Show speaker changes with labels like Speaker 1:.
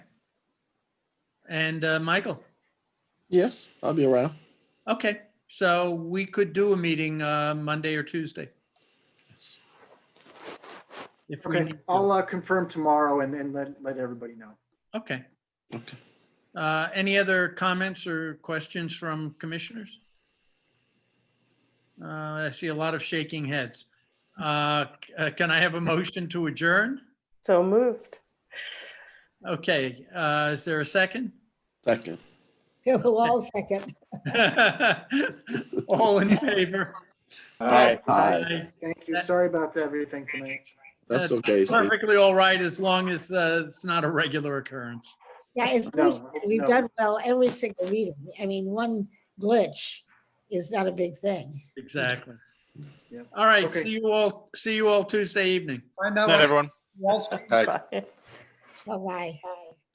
Speaker 1: and uh, Michael.
Speaker 2: Yes, I'll be around.
Speaker 1: Okay, so we could do a meeting uh, Monday or Tuesday. If we
Speaker 3: Okay,
Speaker 1: need to.
Speaker 3: I'll uh, confirm tomorrow and then let, let everybody know.
Speaker 1: Okay.
Speaker 2: Okay.
Speaker 1: Uh, Any other comments or questions from commissioners? Uh, I see a lot of shaking heads. Uh, c- uh, Can I have a motion to adjourn?
Speaker 4: So moved.
Speaker 1: Okay, uh, is there a second?
Speaker 2: Second.
Speaker 5: Yeah, we'll all second.
Speaker 1: All in favor?
Speaker 2: Aye.
Speaker 3: Thank you. Sorry about everything tonight.
Speaker 2: That's okay, Steve.
Speaker 1: Perfectly all right, as long as uh, it's not a regular occurrence.
Speaker 5: Yeah, it's,
Speaker 3: No,
Speaker 5: Bruce said, we've
Speaker 3: no.
Speaker 5: done well every single meeting. I mean, one glitch is not a big thing.
Speaker 1: Exactly.
Speaker 3: Yep.
Speaker 1: All right,
Speaker 3: Okay.
Speaker 1: see you all, see you all Tuesday evening.
Speaker 6: Night, everyone.
Speaker 5: Bye-bye.